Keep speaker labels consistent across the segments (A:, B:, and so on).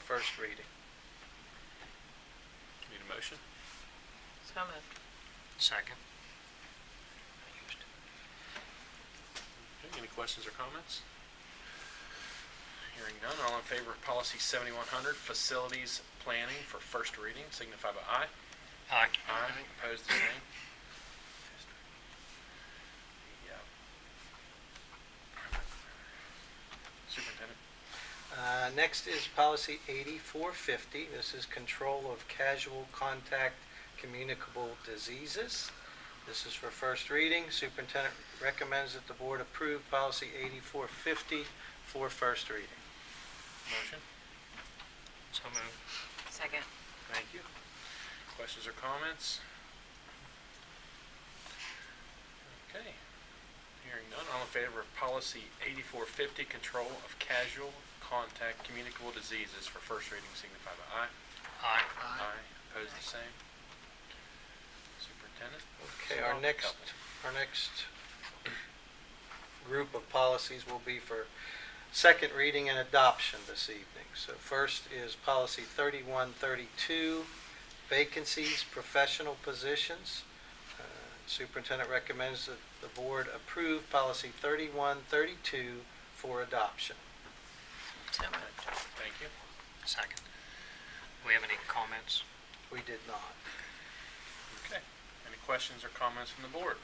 A: first reading.
B: Need a motion?
C: So moved.
D: Second.
B: Okay, Any questions or comments? Hearing none, all in favor of policy 7100, facilities planning for first reading, signify by aye.
D: Aye.
B: Aye. Opposed, the same. The, uh, Superintendent,
A: Uh, Next is policy 8450. This is control of casual contact communicable diseases. This is for first reading. Superintendent recommends that the board approve policy 8450 for first reading.
B: motion?
D: So moved.
C: Second.
B: Thank you. Questions or comments? Okay. Hearing none, all in favor of policy 8450, control of casual contact communicable diseases for first reading, signify by aye.
D: Aye.
B: Aye. Opposed, the same. Superintendent?
A: Okay, our next, our next group of policies will be for second reading and adoption this evening. So first is policy 3132, vacancies, professional positions. Uh, Superintendent recommends that the board approve policy 3132 for adoption.
C: So moved.
B: Thank you.
D: Second. Do we have any comments?
A: We did not.
B: Okay. Any questions or comments from the board?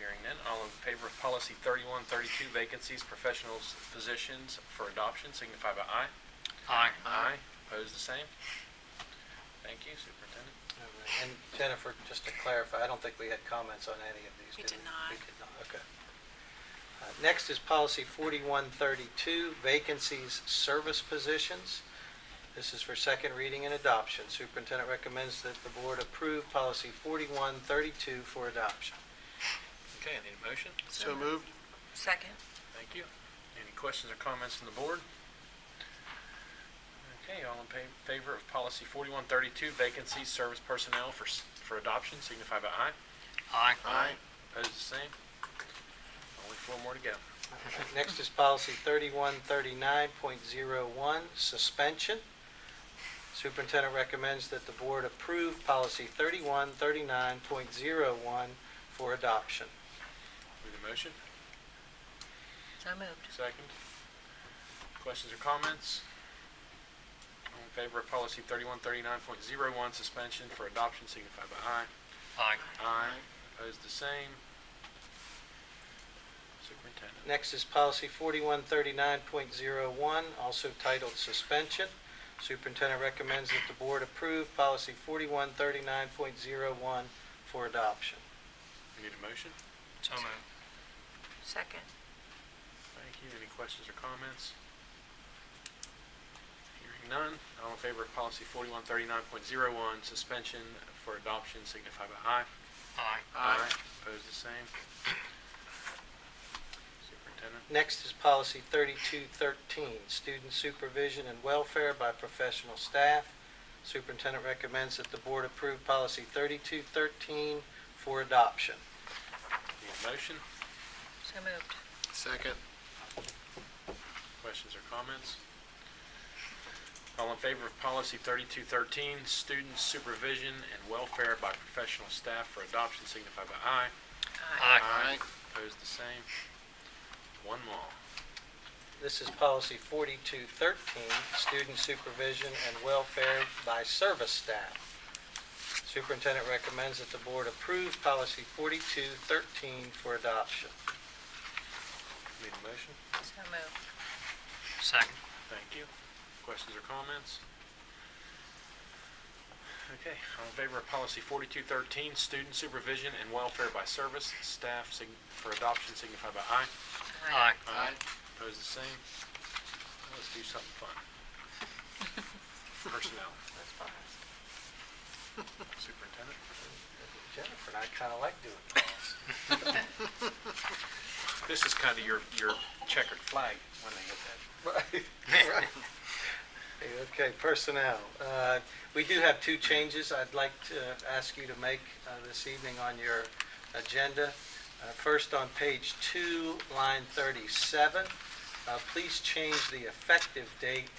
B: Hearing none, all in favor of policy 3132, vacancies, professionals, positions for adoption, signify by aye.
D: Aye.
B: Opposed, the same. Thank you, Superintendent.
A: All right. And Jennifer, just to clarify, I don't think we had comments on any of these,
C: We
A: did we?
C: did not.
A: We did not, okay. Uh, Next is policy 4132, vacancies, service positions. This is for second reading and adoption. Superintendent recommends that the board approve policy 4132 for adoption.
B: Okay, I need a motion.
C: So moved. Second.
B: Thank you. Any questions or comments from the board? Okay, all in pa- favor of policy 4132, vacancies, service personnel for, s- for adoption, signify by aye.
D: Aye.
B: Opposed, the same. Only four more to go.
A: All right. Next is policy 3139.01, suspension. Superintendent recommends that the board approve policy 3139.01 for adoption.
B: Need a motion?
C: So moved.
B: Second. Questions or comments? All in favor of policy 3139.01, suspension for adoption, signify by aye.
D: Aye.
B: Aye. Opposed, the same. Superintendent.
A: Next is policy 4139.01, also titled suspension. Superintendent recommends that the board approve policy 4139.01 for adoption.
B: Need a motion?
D: So moved.
C: Second.
B: Thank you. Any questions or comments? Hearing none. All in favor of policy 4139.01, suspension for adoption, signify by aye.
D: Aye.
B: Opposed, the same. Superintendent.
A: Next is policy 3213, student supervision and welfare by professional staff. Superintendent recommends that the board approve policy 3213 for adoption.
B: Need a motion?
C: So moved.
E: Second.
B: Questions or comments? All in favor of policy 3213, student supervision and welfare by professional staff for adoption, signify by aye.
D: Aye.
E: Aye.
B: Opposed, the same. One more.
A: This is policy 4213, student supervision and welfare by service staff. Superintendent recommends that the board approve policy 4213 for adoption.
B: Need a motion?
C: So moved.
D: Second.
B: Thank you. Questions or comments? Okay, all in favor of policy 4213, student supervision and welfare by service staff sign- for adoption, signify by aye.
D: Aye.
E: Aye.
B: Opposed, the same. Let's do something fun. Personnel,
C: Let's pause.
B: superintendent.
A: Jennifer and I kind of like doing that.
B: This is kind of your, your checkered flag when they hit that.
A: Right, right. Okay, personnel. Uh, We do have two changes I'd like to ask you to make uh, this evening on your agenda. Uh, First, on page two, line 37, uh, please change the effective date